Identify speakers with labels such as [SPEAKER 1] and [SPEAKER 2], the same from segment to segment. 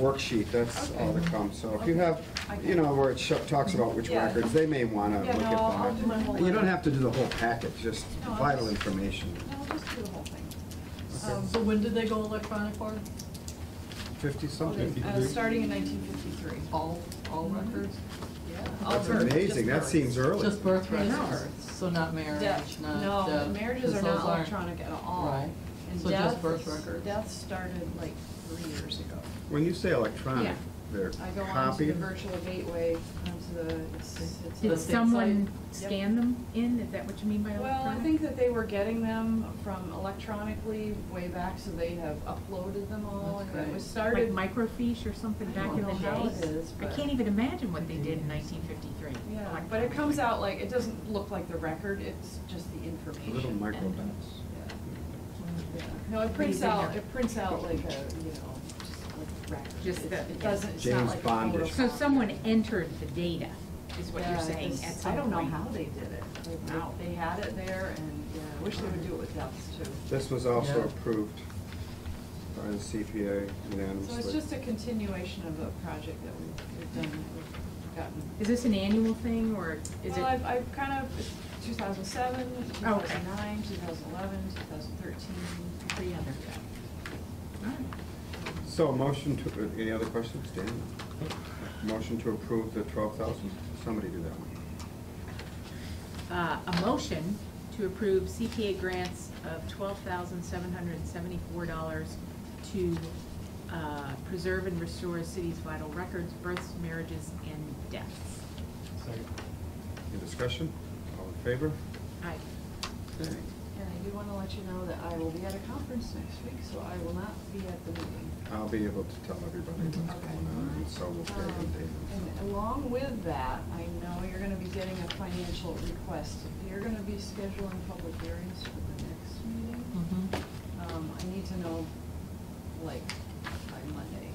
[SPEAKER 1] worksheet, that's all that comes. So if you
[SPEAKER 2] Okay.
[SPEAKER 1] have, you know, where it sho- talks about which
[SPEAKER 2] Yeah.
[SPEAKER 1] records, they may want to look
[SPEAKER 2] Yeah,
[SPEAKER 1] at
[SPEAKER 2] no, I'll- I'll do my
[SPEAKER 1] that.
[SPEAKER 2] whole
[SPEAKER 1] And You don't
[SPEAKER 2] letter.
[SPEAKER 1] have to do the whole packet, just
[SPEAKER 2] No, I'll
[SPEAKER 1] vital
[SPEAKER 2] just-
[SPEAKER 1] information.
[SPEAKER 2] No, I'll just do the whole thing.
[SPEAKER 1] Okay.
[SPEAKER 2] Um, So when did they go electronic for?
[SPEAKER 1] Fifty-something.
[SPEAKER 3] Uh, starting in nineteen fifty-three.
[SPEAKER 2] All, all
[SPEAKER 3] Mm-hmm.
[SPEAKER 2] records?
[SPEAKER 3] Yeah. all
[SPEAKER 1] That's
[SPEAKER 3] births, just
[SPEAKER 1] amazing, that
[SPEAKER 3] births.
[SPEAKER 1] seems early.
[SPEAKER 2] Just birth
[SPEAKER 3] Yes.
[SPEAKER 2] records, so not marriage,
[SPEAKER 3] Death,
[SPEAKER 2] not
[SPEAKER 3] no,
[SPEAKER 2] death,
[SPEAKER 3] marriages are
[SPEAKER 2] 'cause
[SPEAKER 3] not
[SPEAKER 2] those aren't-
[SPEAKER 3] electronic at all.
[SPEAKER 2] Right.
[SPEAKER 3] And
[SPEAKER 2] So just
[SPEAKER 3] death
[SPEAKER 2] birth
[SPEAKER 3] is-
[SPEAKER 2] records.
[SPEAKER 3] Death started like three years ago.
[SPEAKER 1] When you say electronic,
[SPEAKER 3] Yeah.
[SPEAKER 1] they're
[SPEAKER 3] I go onto the
[SPEAKER 1] copied?
[SPEAKER 3] virtual gateway, onto the, it's, it's.
[SPEAKER 2] The
[SPEAKER 3] a-
[SPEAKER 4] Did
[SPEAKER 2] same
[SPEAKER 4] someone
[SPEAKER 3] site. Yep.
[SPEAKER 4] scan them in? Is that what you mean by
[SPEAKER 3] Well, I
[SPEAKER 4] electronic?
[SPEAKER 3] think that they were getting them from electronically way back, so they have uploaded them all,
[SPEAKER 2] That's
[SPEAKER 3] and it was
[SPEAKER 2] great.
[SPEAKER 3] started.
[SPEAKER 4] Like microfiche or something
[SPEAKER 3] I
[SPEAKER 4] back
[SPEAKER 3] don't
[SPEAKER 4] in the
[SPEAKER 3] know how it
[SPEAKER 4] day?
[SPEAKER 3] is,
[SPEAKER 4] I
[SPEAKER 3] but-
[SPEAKER 4] can't even imagine what they did in nineteen fifty-three.
[SPEAKER 3] Yeah, but it comes out like, it doesn't look like the record, it's just the information.
[SPEAKER 1] Little micro dots.
[SPEAKER 3] Yeah. Yeah. No, it prints
[SPEAKER 4] What do you
[SPEAKER 3] out,
[SPEAKER 4] think?
[SPEAKER 3] it prints out like a, you know, just like record.
[SPEAKER 4] Just
[SPEAKER 3] It-
[SPEAKER 4] that-
[SPEAKER 3] It doesn't, it's
[SPEAKER 1] James
[SPEAKER 3] not like a
[SPEAKER 1] Bondish.
[SPEAKER 3] photocopy.
[SPEAKER 4] So someone entered the data, is what
[SPEAKER 3] Yeah,
[SPEAKER 4] you're saying,
[SPEAKER 3] it's-
[SPEAKER 4] at some
[SPEAKER 3] I don't know
[SPEAKER 4] point.
[SPEAKER 3] how they did it. They- they-
[SPEAKER 4] Wow.
[SPEAKER 3] They had it there and, yeah, I wish they would do it with deaths too.
[SPEAKER 1] This was also
[SPEAKER 2] Yeah.
[SPEAKER 1] approved by the CPA
[SPEAKER 3] So it's
[SPEAKER 1] unanimously.
[SPEAKER 3] just a continuation of a project that we've we've done, that we've gotten.
[SPEAKER 4] Is this an annual thing, or is
[SPEAKER 3] Well, I've,
[SPEAKER 4] it? Oh,
[SPEAKER 3] I've kind of, it's 2007, 2009, 2011, 2013.
[SPEAKER 4] Every other. Alright.
[SPEAKER 1] So a motion to, any other questions, Dan? Motion to approve the twelve thousand, somebody do that one.
[SPEAKER 4] Uh, a motion to approve CPA grants of twelve thousand seven hundred and seventy-four dollars to, uh, preserve and restore a city's vital records, births, marriages, and deaths.
[SPEAKER 1] Any discussion? All in favor?
[SPEAKER 4] Aye.
[SPEAKER 1] Okay.
[SPEAKER 3] And I do want to let you know that I will be at a conference next week, so I will not be at the meeting.
[SPEAKER 1] I'll be able to tell everybody what's going on, and so we'll carry
[SPEAKER 3] Um,
[SPEAKER 1] the
[SPEAKER 3] And along with that, I know you're gonna be getting a financial request. You're gonna be scheduling public hearings for the next meeting.
[SPEAKER 4] Hmm.
[SPEAKER 3] Um, I need to know, like, by Monday.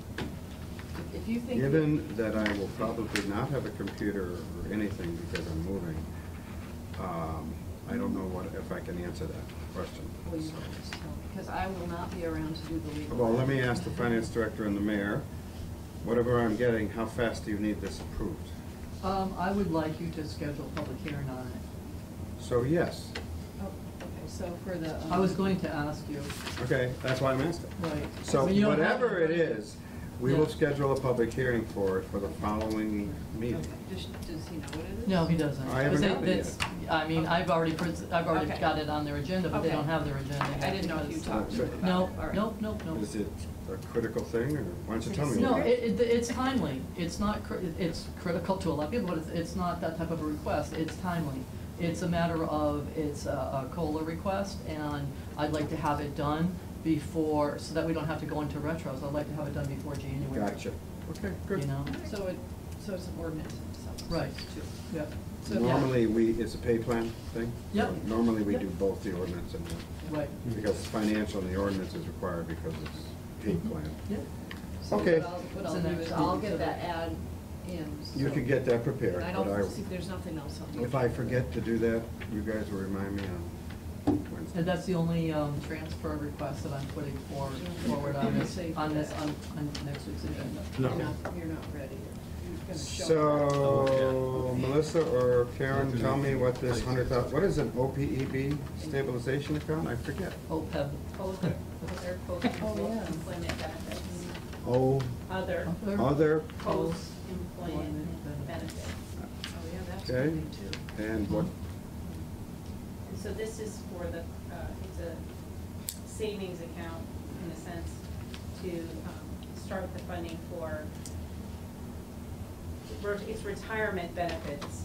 [SPEAKER 3] If- If you think.
[SPEAKER 1] data. Given that I will probably not have a computer or anything because I'm moving, um, I don't know what, if I can answer that question.
[SPEAKER 3] Well, you will just tell me, because I will not be around to do the legal.
[SPEAKER 1] Well, let me ask the finance director and the mayor, whatever I'm getting, how fast do you need this approved?
[SPEAKER 5] Um, I would like you to schedule a public hearing on it.
[SPEAKER 1] So yes,
[SPEAKER 3] Oh, Okay, so for the. um,
[SPEAKER 5] I was going to ask you,
[SPEAKER 1] okay, that's why I'm asking.
[SPEAKER 5] right.
[SPEAKER 1] So
[SPEAKER 5] I mean, you don't have-
[SPEAKER 1] whatever it is, we will
[SPEAKER 5] Yeah.
[SPEAKER 1] schedule a public hearing for it for the following meeting.
[SPEAKER 3] okay, Does, does he know what it is?
[SPEAKER 5] No, he doesn't.
[SPEAKER 1] I haven't
[SPEAKER 5] Because
[SPEAKER 1] gotten it
[SPEAKER 5] that's- I mean, I've already, pres- I've already
[SPEAKER 3] Okay.
[SPEAKER 5] got it on their agenda, but they
[SPEAKER 3] Okay.
[SPEAKER 5] don't have their agenda.
[SPEAKER 3] I didn't know if you
[SPEAKER 5] because-
[SPEAKER 3] talked to him about it.
[SPEAKER 5] No,
[SPEAKER 3] All right.
[SPEAKER 5] nope, nope, nope.
[SPEAKER 1] Is it a critical thing, or why don't you tell me?
[SPEAKER 5] No,
[SPEAKER 1] what
[SPEAKER 5] it, it, it's timely. It's not, cri- it's critical to a lot of people, but it's, it's not that type of a request. It's timely. It's a matter of, it's a, a COLA request, and I'd like to have it done before, so that we don't have to go into retros. I'd like to have it done before January.
[SPEAKER 1] Gotcha. Okay,
[SPEAKER 5] You
[SPEAKER 1] good.
[SPEAKER 5] know?
[SPEAKER 3] So it, so it's an ordinance in itself. so
[SPEAKER 5] Right.
[SPEAKER 3] it's two.
[SPEAKER 5] Yep.
[SPEAKER 3] So, yeah.
[SPEAKER 1] Normally, we, it's a pay plan thing?
[SPEAKER 5] Yep.
[SPEAKER 1] So Normally, we
[SPEAKER 5] Yep.
[SPEAKER 1] do both the ordinance and, the-
[SPEAKER 5] Right.
[SPEAKER 1] because it's financial, and the ordinance is required because it's pay plan.
[SPEAKER 5] Mm-hmm. Yep.
[SPEAKER 3] So
[SPEAKER 1] Okay.
[SPEAKER 3] what I'll, what
[SPEAKER 5] So
[SPEAKER 3] I'll do
[SPEAKER 5] next
[SPEAKER 3] is I'll
[SPEAKER 5] week, so
[SPEAKER 3] get that
[SPEAKER 5] that-
[SPEAKER 3] ad in.
[SPEAKER 1] You
[SPEAKER 3] so-
[SPEAKER 1] could get that prepared,
[SPEAKER 3] And I
[SPEAKER 1] but
[SPEAKER 3] don't, see
[SPEAKER 1] I,
[SPEAKER 3] there's nothing else I'll do.
[SPEAKER 1] if I forget to do that, you guys will remind me on Wednesday.
[SPEAKER 5] And that's the only, um, transfer request that I'm putting forward, forward on this, on this, on, on next week's agenda.
[SPEAKER 3] You're
[SPEAKER 1] No.
[SPEAKER 3] not, you're not ready. You're gonna show up.
[SPEAKER 1] So, Melissa or Karen, tell me what this hundred thousand, what is an OPEB stabilization account? I forget.
[SPEAKER 5] OPEB.
[SPEAKER 6] Other, other
[SPEAKER 3] yeah.
[SPEAKER 6] post-employment benefits,
[SPEAKER 1] Oh,
[SPEAKER 6] other
[SPEAKER 1] other,
[SPEAKER 6] post-employment benefits.
[SPEAKER 3] Oh, yeah, that's
[SPEAKER 1] Okay.
[SPEAKER 3] coming too.
[SPEAKER 1] and what,
[SPEAKER 6] And so this is for the, uh, it's a savings account in a sense to um, start the funding for, re- it's retirement benefits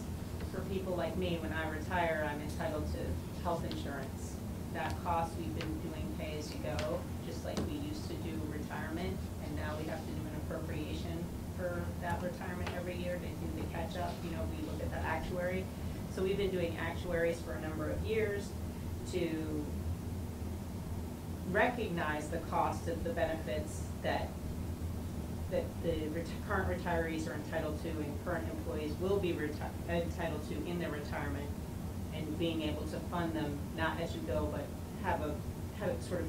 [SPEAKER 6] for people like me. When I retire, I'm entitled to health insurance. That cost, we've been doing pay-as-you-go, just like we used to do retirement. And now we have to do an appropriation for that retirement every year to do the catch-up. You know, we look at the actuary. So we've been doing actuaries for a number of years to recognize the cost of the benefits that, that the ret- current retirees are entitled to and current employees will be reti- entitled to in their retirement, and being able to fund them, not as you go, but have a, have it sort of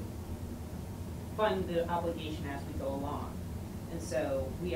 [SPEAKER 6] fund the obligation as we go along. And so we